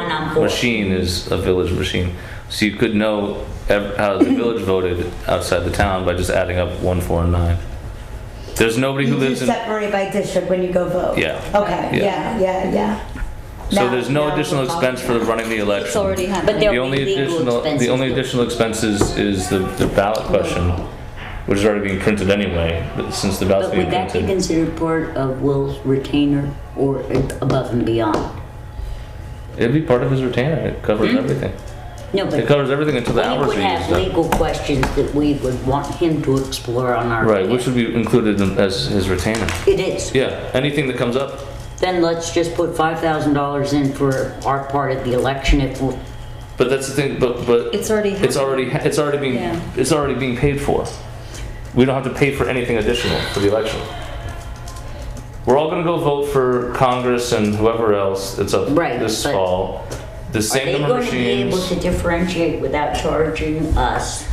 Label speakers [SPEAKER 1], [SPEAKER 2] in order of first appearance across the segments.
[SPEAKER 1] town force.
[SPEAKER 2] machine is a village machine. So you could know ev- how the village voted outside the town by just adding up one, four, and nine. There's nobody who
[SPEAKER 1] You do
[SPEAKER 2] lives in,
[SPEAKER 1] separate by district when you go vote?
[SPEAKER 2] Yeah.
[SPEAKER 1] Okay,
[SPEAKER 2] Yeah.
[SPEAKER 1] yeah, yeah, yeah.
[SPEAKER 2] so
[SPEAKER 1] Now-
[SPEAKER 2] there's no
[SPEAKER 1] now
[SPEAKER 2] additional
[SPEAKER 1] we're talking.
[SPEAKER 2] expense for running the election.
[SPEAKER 3] It's already
[SPEAKER 4] But
[SPEAKER 3] happened.
[SPEAKER 4] there
[SPEAKER 2] The
[SPEAKER 4] will
[SPEAKER 2] only
[SPEAKER 4] be legal
[SPEAKER 2] additional, the only
[SPEAKER 4] expenses.
[SPEAKER 2] additional expenses is the, the ballot question, which is already being printed anyway, but since the ballot's
[SPEAKER 4] But
[SPEAKER 2] being
[SPEAKER 4] would that be
[SPEAKER 2] printed.
[SPEAKER 4] considered part of Will's retainer or above and beyond?
[SPEAKER 2] It'd be part of his retainer, it covers everything.
[SPEAKER 4] No,
[SPEAKER 2] It
[SPEAKER 4] Hmm? but
[SPEAKER 2] covers everything until the
[SPEAKER 4] we
[SPEAKER 2] hours
[SPEAKER 4] would
[SPEAKER 2] are
[SPEAKER 4] have
[SPEAKER 2] used up.
[SPEAKER 4] legal questions that we would want him to explore on our.
[SPEAKER 2] Right, which
[SPEAKER 4] behalf.
[SPEAKER 2] would be included in- as his retainer.
[SPEAKER 4] It is.
[SPEAKER 2] Yeah, anything that comes up,
[SPEAKER 4] Then let's just put five thousand dollars in for our part of the election if we're.
[SPEAKER 2] but that's the thing, but, but.
[SPEAKER 3] It's already
[SPEAKER 2] It's already, ha- it's already being,
[SPEAKER 3] Yeah.
[SPEAKER 2] it's already being paid for. We don't have to pay for anything additional for the election. We're all gonna go vote for Congress and whoever else that's up
[SPEAKER 4] Right,
[SPEAKER 2] this
[SPEAKER 4] but-
[SPEAKER 2] fall. The
[SPEAKER 4] Are they
[SPEAKER 2] same number of
[SPEAKER 4] going to be able
[SPEAKER 2] machines.
[SPEAKER 4] to differentiate without charging us?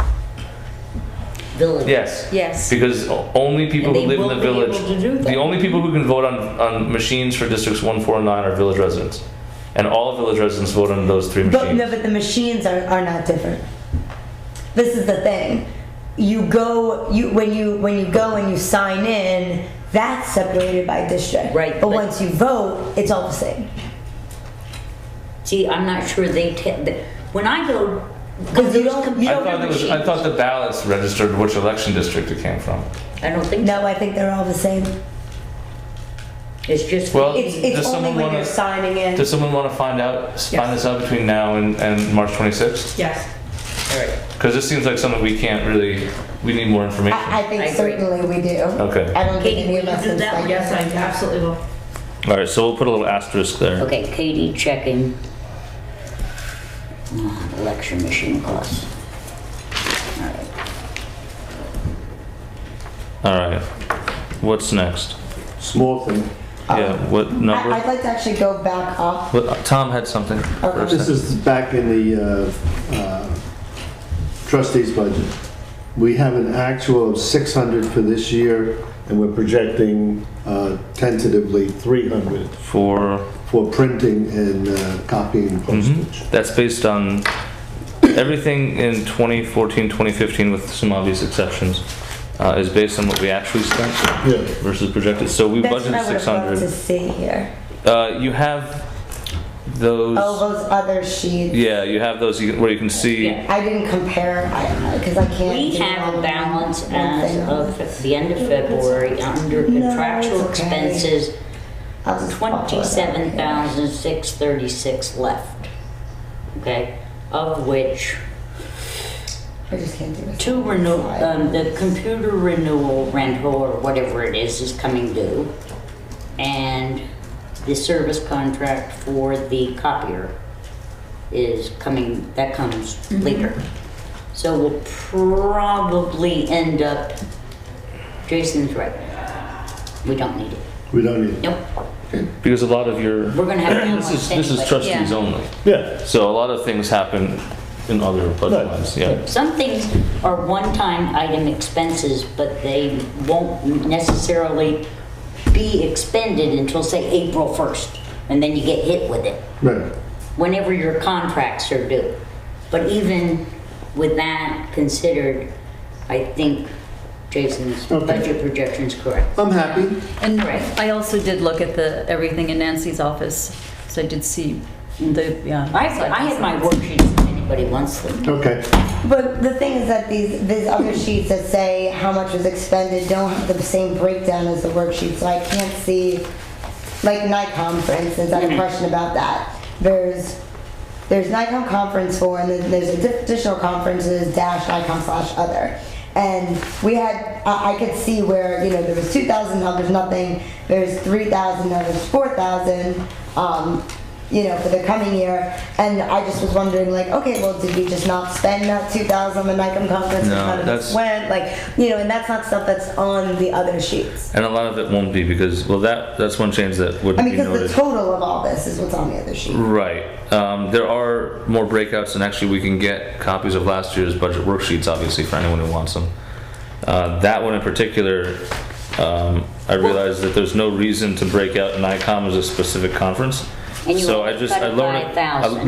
[SPEAKER 4] Village.
[SPEAKER 2] Yes.
[SPEAKER 3] Yes.
[SPEAKER 2] Because o- only people
[SPEAKER 4] And
[SPEAKER 2] who
[SPEAKER 4] they
[SPEAKER 2] live in the
[SPEAKER 4] won't be able
[SPEAKER 2] village,
[SPEAKER 4] to do
[SPEAKER 2] the
[SPEAKER 4] that.
[SPEAKER 2] only people who can vote on, on machines for districts one, four, and nine are village residents. And all village residents vote on those three
[SPEAKER 1] But no,
[SPEAKER 2] machines.
[SPEAKER 1] but the machines are, are not different. This is the thing. You go you when you when you go and you sign in, that's separated by district.
[SPEAKER 4] Right,
[SPEAKER 1] But
[SPEAKER 4] but-
[SPEAKER 1] once you vote, it's all the same.
[SPEAKER 4] See, I'm not sure they, ta- the- when I go.
[SPEAKER 1] Because you don't- you
[SPEAKER 2] I
[SPEAKER 1] don't
[SPEAKER 2] thought it was, I thought the ballots registered which election district it came from.
[SPEAKER 4] I don't think so.
[SPEAKER 1] No, I think they're all the same.
[SPEAKER 4] It's just.
[SPEAKER 2] Well,
[SPEAKER 1] It's it's
[SPEAKER 2] Does
[SPEAKER 1] only
[SPEAKER 2] someone
[SPEAKER 1] when
[SPEAKER 2] wanna-
[SPEAKER 1] you're signing in.
[SPEAKER 2] Does someone want to find out, s- find this out between now and, and March 26th?
[SPEAKER 5] Yes.
[SPEAKER 4] All right.
[SPEAKER 2] Because this seems like something we can't really, we need more information.
[SPEAKER 1] I, I think
[SPEAKER 4] I agree.
[SPEAKER 1] certainly we do.
[SPEAKER 2] Okay.
[SPEAKER 1] I don't think
[SPEAKER 4] Katie,
[SPEAKER 1] any of
[SPEAKER 4] will you
[SPEAKER 1] us
[SPEAKER 4] do
[SPEAKER 1] have
[SPEAKER 4] that
[SPEAKER 1] signed
[SPEAKER 4] one?
[SPEAKER 5] Yes, I absolutely will.
[SPEAKER 2] All right, so we'll put a little asterisk there.
[SPEAKER 4] Okay, Katie checking. Uh, Election machine costs.
[SPEAKER 2] All right, what's next?
[SPEAKER 6] Small thing.
[SPEAKER 2] Yeah, what
[SPEAKER 1] Uh, I, I'd
[SPEAKER 2] number?
[SPEAKER 1] like to actually go back up.
[SPEAKER 2] What- Tom had something. for a
[SPEAKER 1] Okay.
[SPEAKER 6] This
[SPEAKER 2] sec.
[SPEAKER 6] is back in the uh, uh, trustees' budget. We have an actual of 600 for this year, and we're projecting uh, tentatively 300
[SPEAKER 2] For,
[SPEAKER 6] for printing and uh, copying postage.
[SPEAKER 2] mm-hmm. that's based on everything in 2014, 2015, with some obvious exceptions, uh, is based on what we actually spent
[SPEAKER 6] Yeah.
[SPEAKER 2] versus projected. So we
[SPEAKER 1] That's what I
[SPEAKER 2] budgeted
[SPEAKER 1] would have loved to
[SPEAKER 2] 600.
[SPEAKER 1] see here.
[SPEAKER 2] Uh, you have those,
[SPEAKER 1] Oh, those other sheets.
[SPEAKER 2] yeah, you have those you- where you can see,
[SPEAKER 4] Yeah.
[SPEAKER 1] I didn't compare because I can't.
[SPEAKER 4] We
[SPEAKER 1] do
[SPEAKER 4] have a
[SPEAKER 1] all
[SPEAKER 4] balance
[SPEAKER 1] one
[SPEAKER 4] as
[SPEAKER 1] thing.
[SPEAKER 4] of the end of February under
[SPEAKER 1] No,
[SPEAKER 4] contractual
[SPEAKER 1] it's okay.
[SPEAKER 4] expenses,
[SPEAKER 1] I'll just pop it up here.
[SPEAKER 4] twenty-seven thousand six thirty-six left. Okay, of which
[SPEAKER 1] I just can't do it.
[SPEAKER 4] two renew, um, the computer renewal rental or whatever it is is coming due. And the service contract for the copier is coming, that comes later. So we'll probably end up, Jason's right. We don't need it.
[SPEAKER 6] We don't need it.
[SPEAKER 4] Nope,
[SPEAKER 2] because a lot of your,
[SPEAKER 4] we're gonna have a
[SPEAKER 2] this is,
[SPEAKER 4] balance
[SPEAKER 2] this is
[SPEAKER 4] anyway.
[SPEAKER 2] trustees
[SPEAKER 3] Yeah.
[SPEAKER 2] only.
[SPEAKER 6] Yeah.
[SPEAKER 2] So a lot of things happen in other budget
[SPEAKER 6] Right,
[SPEAKER 2] lines, yeah.
[SPEAKER 4] Some things are one-time item expenses, but they won't necessarily be expended until, say, April 1st, and then you get hit with it,
[SPEAKER 6] Right.
[SPEAKER 4] whenever your contracts are due. But even with that considered, I think Jason's
[SPEAKER 6] Okay.
[SPEAKER 4] budget projection's correct.
[SPEAKER 6] I'm happy.
[SPEAKER 3] And
[SPEAKER 4] Right.
[SPEAKER 3] I also did look at the, everything in Nancy's office, so I did see the, yeah.
[SPEAKER 4] I have, I have my worksheets if anybody wants them.
[SPEAKER 6] Okay.
[SPEAKER 1] But the thing is that these these other sheets that say how much was expended don't have the same breakdown as the worksheet, so I can't see. Like NICOM, for instance, I have a question about that. There's there's NICOM conference for, and then there's additional conferences dash NICOM slash other. And we had, I, I could see where, you know, there was two thousand, now there's nothing, there's three thousand, now there's four thousand, um, you know, for the coming year. And I just was wondering like, okay, well, did we just not spend that two thousand on the NICOM conference?
[SPEAKER 2] No,
[SPEAKER 1] None of us
[SPEAKER 2] that's-
[SPEAKER 1] Went, like, you know, and that's not stuff that's on the other sheets.
[SPEAKER 2] And a lot of it won't be because, well, that, that's one change that
[SPEAKER 1] I
[SPEAKER 2] wouldn't
[SPEAKER 1] mean,
[SPEAKER 2] be
[SPEAKER 1] because the
[SPEAKER 2] noted.
[SPEAKER 1] total of all this is what's on the other sheet.
[SPEAKER 2] Right. Um, there are more breakouts, and actually, we can get copies of last year's budget worksheets, obviously, for anyone who wants them. Uh, that one in particular, um, I realized that there's no reason to break out NICOM as a specific conference.
[SPEAKER 4] And you
[SPEAKER 2] so
[SPEAKER 4] only
[SPEAKER 2] I just I
[SPEAKER 4] cut it
[SPEAKER 2] lowered
[SPEAKER 4] by
[SPEAKER 2] it, I
[SPEAKER 4] 1,000.